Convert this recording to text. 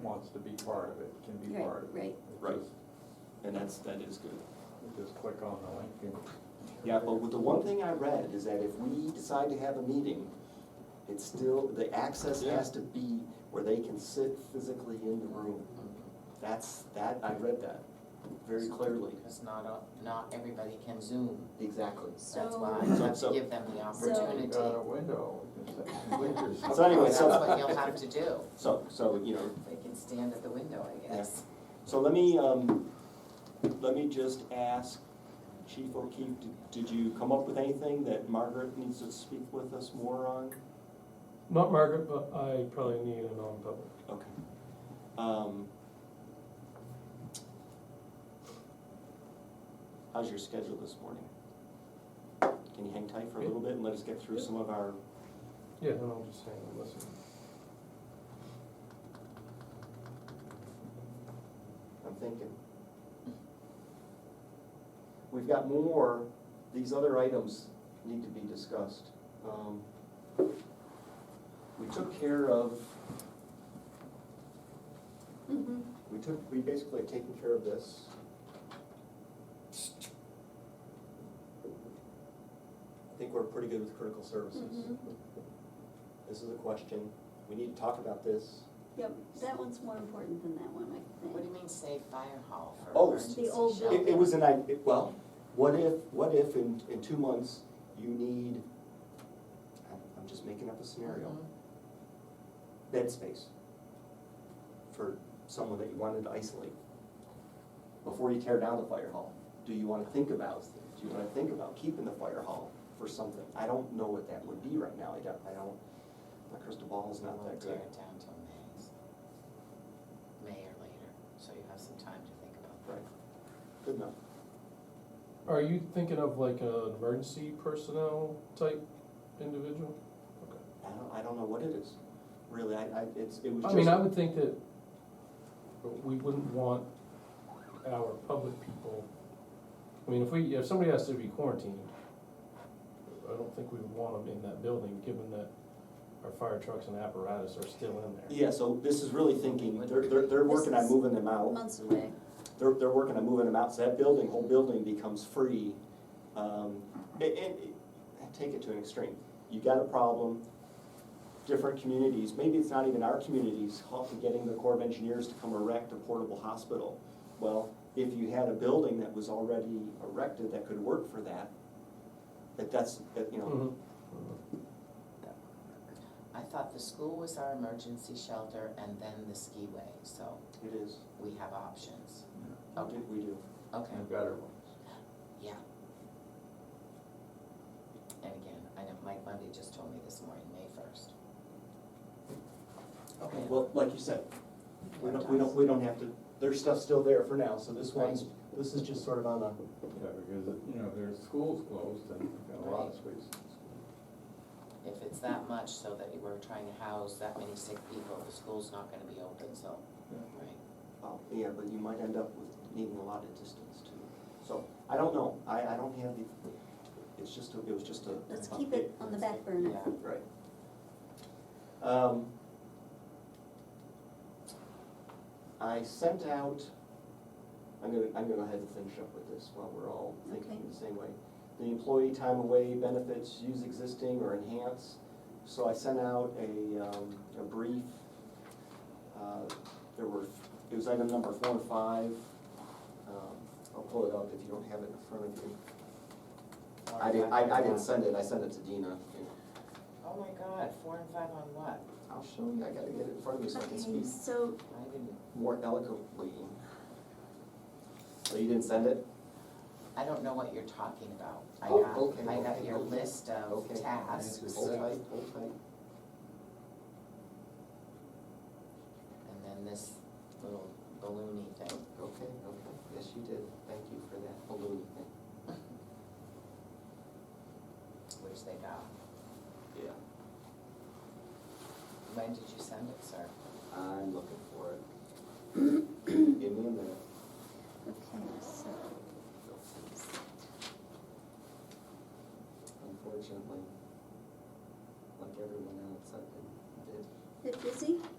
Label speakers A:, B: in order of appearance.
A: wants to be part of it can be
B: Right,
A: part of it.
B: right.
A: It
C: Right.
A: just-
C: and that's, that is good.
A: you Just click on the link and.
C: Yeah, but with the one thing I read is that if we decide to have a meeting, it's still, the access has to be where they can sit physically in the room. That's, that, I read that very clearly.
D: Because not, a- not everybody can Zoom,
C: Exactly.
D: that's
B: So-
D: why you have
C: So-
D: to give them the
B: So-
D: opportunity.
A: Got a window.
C: So anyway,
D: That's
C: so-
D: what you'll have to do,
C: So, so, you know,
D: they can stand at the window, I guess.
C: so let me, um, let me just ask Chief O'Keefe, did- did you come up with anything that Margaret needs to speak with us more on?
E: Not Margaret, but I probably need a non-public.
C: Okay. Um, How's your schedule this morning? Can you hang tight for a little bit and let us get through some of our,
E: Yeah, and I'll just hang and listen.
C: I'm thinking. We've got more, these other items need to be discussed. Um, We took care of,
B: Mhm.
C: we took, we basically have taken care of this. I think we're pretty good with critical services.
B: Mhm.
C: This is a question, we need to talk about this.
B: Yep, that one's more important than that one, I
D: What do
B: think.
D: you mean, say fire hall for
C: Oh,
D: emergency
B: The old
D: shelter?
C: It, it was an, i- it- well, what if, what if in, in two months, you need, I'm, I'm just making up a scenario,
B: Mm-hmm.
D: Mhm.
C: bed space for someone that you wanted to isolate before you tear down the fire hall? Do you wanna think about, do you wanna think about keeping the fire hall for something? I don't know what that would be right now, I don't, I don't, my crystal ball is not
D: We'll
C: that
D: tear
C: good.
D: it down till May, so- May or later, so you have some time to think about
C: Right, good enough.
E: Are you thinking of like an emergency personnel type individual?
C: I don't, I don't know what it is, really, I, I, it's, it was
E: I
C: just.
E: mean, I would think that we wouldn't want our public people, I mean, if we, if somebody has to be quarantined, I don't think we would want them in that building, given that our fire trucks and apparatus are still in there.
C: Yeah, so this is really thinking, they're, they're, they're working on moving them out,
B: Months away.
C: they're, they're working on moving them out, so that building, whole building becomes free. Um, and, and, take it to an extreme, you got a problem, different communities, maybe it's not even our communities, helping getting the Corps of Engineers to come erect a portable hospital. Well, if you had a building that was already erected that could work for that, that that's, that, you know,
E: Mhm.
D: it. I thought the school was our emergency shelter and then the skiway, so
C: it is,
D: we have options. Oh,
C: we do- we do.
D: Okay,
A: And better ones.
D: yeah. And again, I know Mike Monday just told me this morning, May first.
C: Okay, well, like you said, We don't, we don't, we don't have to, there's stuff still there for now, so this one's, this is just sort of on the,
A: Yeah, because, you know, there's schools closed and you've got a lot of spaces.
D: If it's that much so that we're trying to house that many sick people, the school's not gonna be open, so, right?
C: oh, yeah, but you might end up with needing a lot of distance too. So, I don't know, I, I don't have the, it's just, a it was just a.
B: Let's keep it on the back burner.
D: Yeah.
C: Right. Um, I sent out, I'm gonna, I'm gonna head the finish up with this while we're all thinking
B: Okay.
C: the same way. The employee time away benefits, use existing or enhance. So I sent out a, um, a brief, uh, there were, it was item number four and five. Um, I'll pull it up if you don't have it in front of you. I didn't, I, I didn't send it, I sent it to Dina.
D: Oh my god, four and five on what?
C: I'll show you, I gotta get it in front of me so I can
B: Okay,
C: speak
B: so,
D: I didn't,
C: more eloquently. So you didn't send it?
D: I don't know what you're talking about. I
C: Oh, okay,
D: got, I got
C: okay,
D: your
C: okay,
D: list of
C: okay.
D: tasks
A: This
C: Hold
A: is-
D: and
C: tight, hold tight.
D: then this little balloony thing.
C: Okay, okay, yes, you did, thank you for that balloon thing.
D: Which they got.
C: Yeah.
D: When did you send it, sir?
C: I'm looking for it. Give me a minute.
B: okay, so,
C: Unfortunately, like everyone else, I've been,
B: bit busy?